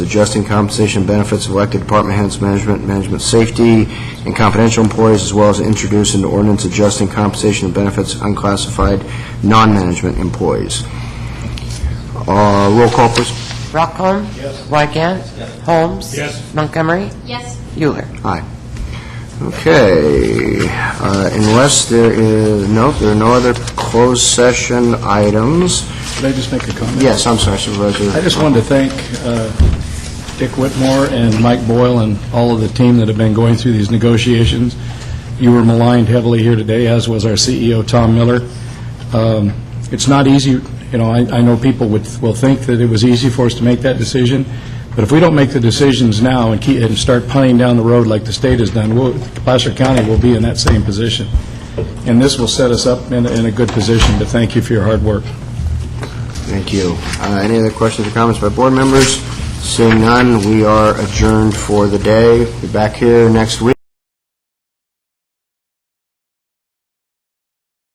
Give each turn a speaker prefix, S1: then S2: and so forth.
S1: adjusting compensation benefits of elected department heads, management, management safety, and confidential employees, as well as introduce an ordinance adjusting compensation and benefits of unclassified non-management employees. Uh, Roll call, please.
S2: Rockholm? Yes. Weigand? Holmes?
S3: Yes.
S2: Montgomery?
S4: Yes.
S2: Euler?
S1: Aye. Okay, uh, unless there is, no, there are no other closed session items.
S3: Could I just make a comment?
S1: Yes, I'm sorry, Supervisor.
S3: I just wanted to thank uh, Dick Whitmore and Mike Boyle and all of the team that have been going through these negotiations. You were maligned heavily here today, as was our CEO, Tom Miller. Um, It's not easy, you know, I I know people would- will think that it was easy for us to make that decision, but if we don't make the decisions now and keep- and start punting down the road like the state has done, we'll- Placer County will be in that same position. And this will set us up in in a good position, but thank you for your hard work.
S1: Thank you. Uh, Any other questions or comments by board members? Seeing none, we are adjourned for the day. Be back here next week.